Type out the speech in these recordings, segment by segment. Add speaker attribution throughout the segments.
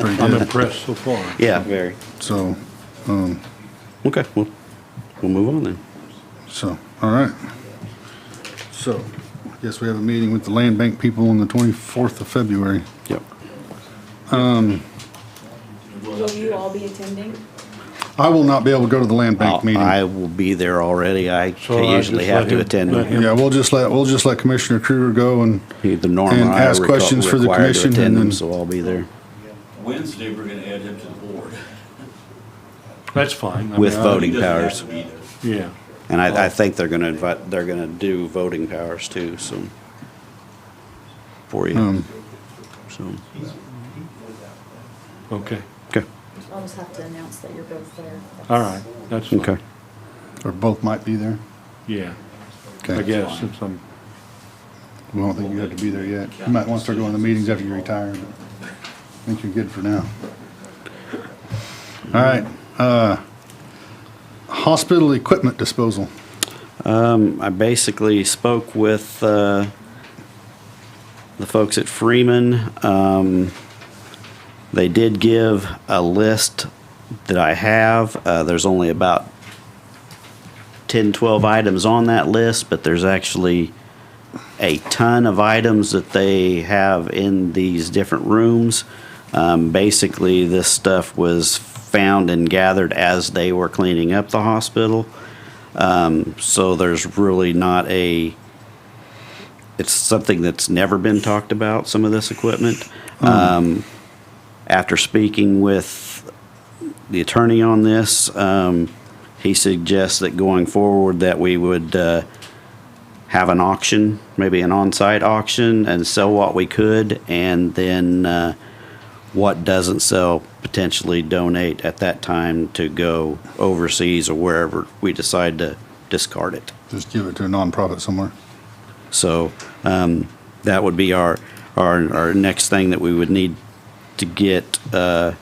Speaker 1: I'm impressed so far.
Speaker 2: Yeah.
Speaker 3: Very.
Speaker 1: So,
Speaker 2: Okay, well, we'll move on then.
Speaker 1: so, all right. So, yes, we have a meeting with the land bank people on the 24th of February.
Speaker 2: Yep.
Speaker 4: Will you all be attending?
Speaker 1: I will not be able to go to the land bank
Speaker 2: I'll-
Speaker 1: meeting.
Speaker 2: Oh, I will be there already. I
Speaker 1: So I
Speaker 2: usually
Speaker 1: just let
Speaker 2: have to
Speaker 1: him- let
Speaker 2: attend.
Speaker 1: him- Yeah, we'll just let, we'll just let Commissioner Kruger go and,
Speaker 2: Either Norm
Speaker 1: And
Speaker 2: or I are
Speaker 1: ask questions for the
Speaker 2: required to
Speaker 1: commission and
Speaker 2: attend them,
Speaker 1: then-
Speaker 2: so I'll be there
Speaker 5: Wednesday, we're gonna add him to the board.
Speaker 6: That's fine. I
Speaker 2: with
Speaker 6: mean, I-
Speaker 5: He
Speaker 2: voting
Speaker 5: doesn't have
Speaker 2: powers.
Speaker 5: to be there.
Speaker 6: Yeah.
Speaker 2: And I, I think they're gonna invite, they're gonna do voting powers too, so. For you,
Speaker 1: um,
Speaker 2: so,
Speaker 6: Okay.
Speaker 2: okay,
Speaker 4: I'll just have to announce that you're both there.
Speaker 6: All right. That's fine.
Speaker 2: okay.
Speaker 1: or both might be there.
Speaker 6: Yeah.
Speaker 1: Okay.
Speaker 6: I guess since I'm.
Speaker 1: We don't think you have to be there yet. You might want to start going to meetings after you retire, but I think you're good for now. All right, uh, hospital equipment disposal.
Speaker 2: Um, I basically spoke with, uh, the folks at Freeman. Um, they did give a list that I have. Uh, there's only about 10, 12 items on that list, but there's actually a ton of items that they have in these different rooms. Um, basically, this stuff was found and gathered as they were cleaning up the hospital. Um, so there's really not a. It's something that's never been talked about. Some of this equipment. Um, after speaking with the attorney on this, um, he suggests that going forward that we would uh, have an auction, maybe an on-site auction, and sell what we could, and then uh, what doesn't sell potentially donate at that time to go overseas or wherever we decide to discard it.
Speaker 1: Just give it to a nonprofit somewhere.
Speaker 2: So um, that would be our, our, our next thing that we would need to get uh,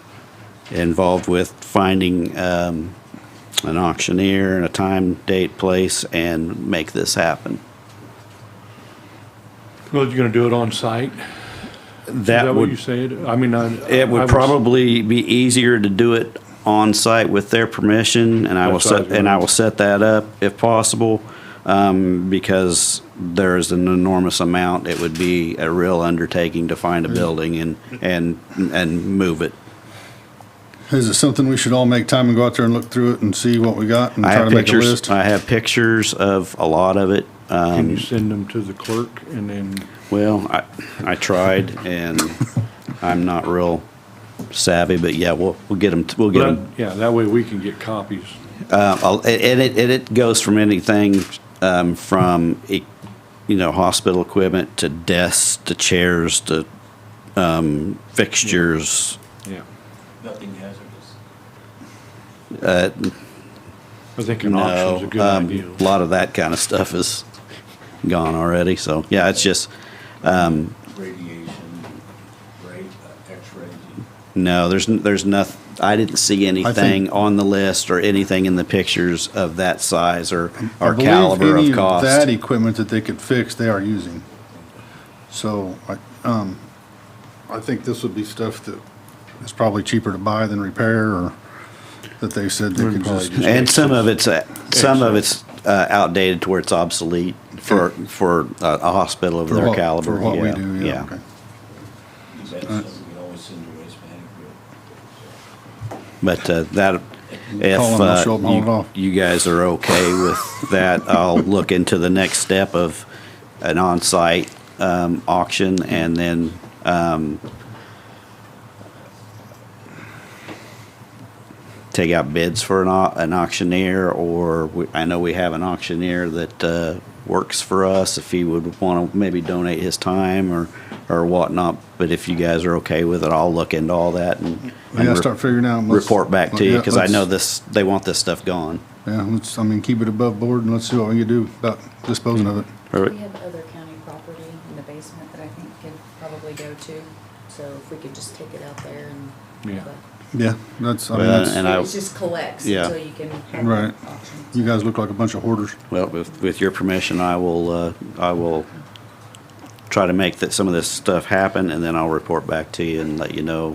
Speaker 2: involved with, finding um, an auctioneer and a time, date, place, and make this happen.
Speaker 6: Well, you're gonna do it on site? Is
Speaker 2: That
Speaker 6: what you
Speaker 2: would,
Speaker 6: said? I mean, I.
Speaker 2: it
Speaker 6: I
Speaker 2: would
Speaker 6: was-
Speaker 2: probably be easier to do it on-site with their permission, and I will
Speaker 6: That's what I was
Speaker 2: set, and I will set that up if possible, um, because there is an enormous amount. It would be a real undertaking to find a
Speaker 6: Mm.
Speaker 2: building and, and, and move it.
Speaker 1: Is it something we should all make time and go out there and look through it and see what we got and
Speaker 2: I
Speaker 1: try
Speaker 2: have
Speaker 1: to make a
Speaker 2: pictures, uh,
Speaker 1: list?
Speaker 2: I have pictures of a lot of it.
Speaker 6: Can
Speaker 2: Um,
Speaker 6: you send them to the clerk and then,
Speaker 2: well, I, I tried and I'm not real savvy, but yeah, we'll, we'll get them, we'll get
Speaker 6: Well,
Speaker 2: them.
Speaker 6: yeah, that way we can get copies.
Speaker 2: Uh, I'll- and it, and it goes from anything, um, from, e- you know, hospital equipment to desks, to chairs, to, um, fixtures.
Speaker 6: Yeah.
Speaker 5: Nothing hazardous.
Speaker 6: I think an auction's a
Speaker 2: No,
Speaker 6: good
Speaker 2: um,
Speaker 6: idea.
Speaker 2: a lot of that kind of stuff is gone already. So, yeah, it's just, um,
Speaker 5: Radiation, rate, uh, x-rays.
Speaker 2: No, there's n- there's nothing. I didn't see anything on the list or anything in the pictures of that size or
Speaker 1: I
Speaker 2: or
Speaker 1: believe
Speaker 2: caliber
Speaker 1: any
Speaker 2: of cost.
Speaker 1: That equipment that they could fix, they are using. So, I, um, I think this would be stuff that is probably cheaper to buy than repair or that they said they could
Speaker 6: probably
Speaker 1: just.
Speaker 6: just-
Speaker 2: and some of it's uh, some of it's uh, outdated to where it's obsolete for
Speaker 1: Okay.
Speaker 2: for a, a hospital of
Speaker 1: for
Speaker 2: their
Speaker 1: what-
Speaker 2: caliber.
Speaker 1: For what
Speaker 2: yeah,
Speaker 1: we do, yeah, okay.
Speaker 5: That's something we always send to waste management.
Speaker 2: But uh, that if
Speaker 1: Call 'em, I'll show 'em how it
Speaker 2: uh,
Speaker 1: off.
Speaker 2: you, you guys are okay with that, I'll look into the next step of an on-site um, auction and then um, take out bids for an, au- an auctioneer or we, I know we have an auctioneer that uh, works for us if he would want to maybe donate his time or or whatnot. But if you guys are okay with it, I'll look into all that and,
Speaker 1: We
Speaker 2: and
Speaker 1: gotta
Speaker 2: re-
Speaker 1: start figuring out. and let's-
Speaker 2: report back to you
Speaker 1: yeah,
Speaker 2: because I know
Speaker 1: let's-
Speaker 2: this. They want this stuff gone.
Speaker 1: Yeah, let's, I mean, keep it above board and let's see what we can do about disposing of it.
Speaker 4: We have other county property in the basement that I think could probably go to, so if we could just take it out there and.
Speaker 6: Yeah.
Speaker 1: Yeah, that's, I mean,
Speaker 2: Well,
Speaker 1: that's,
Speaker 2: and I-
Speaker 4: It just collects
Speaker 2: Yeah.
Speaker 4: until you can. have an
Speaker 1: Right.
Speaker 4: auction.
Speaker 1: you guys look like a bunch of hoarders.
Speaker 2: Well, with, with your permission, I will. Uh, I will try to make that some of this stuff happen, and then I'll report back to you and let you know